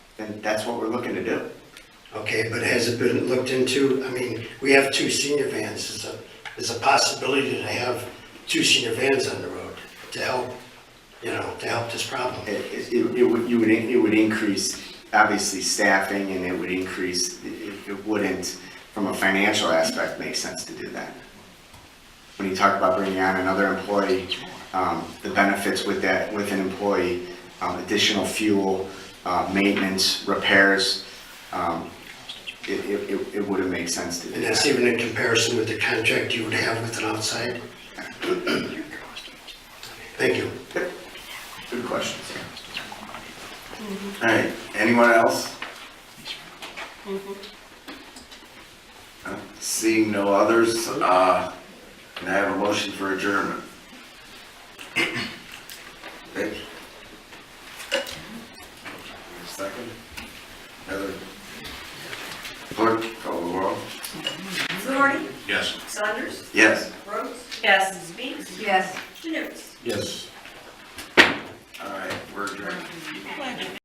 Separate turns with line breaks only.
then that's what we're looking to do.
Okay, but has it been looked into? I mean, we have two senior vans. Is a, is a possibility to have two senior vans on the road to help, you know, to help this problem?
It, it- it, it would, you would, in- it would increase, obviously, staffing, and it would increase, it, it wouldn't, from a financial aspect, make sense to do that. When you talk about bringing on another employee, um, the benefits with that, with an employee, um, additional fuel, uh, maintenance, repairs, um, it, it, it- it wouldn't make sense to do
And
that.
that's even in comparison with the contract you would have with an outside? Thank you.
Good questions. All right, anyone else?
Seeing no others, uh, can I have a motion for adjournment? Okay. Second? Heather? Clerk, call the roll.
Fluharty?
Yes.
Saunders?
Yes.
Rhodes? Yes. Speaks?
Yes.
Janutus?
Yes.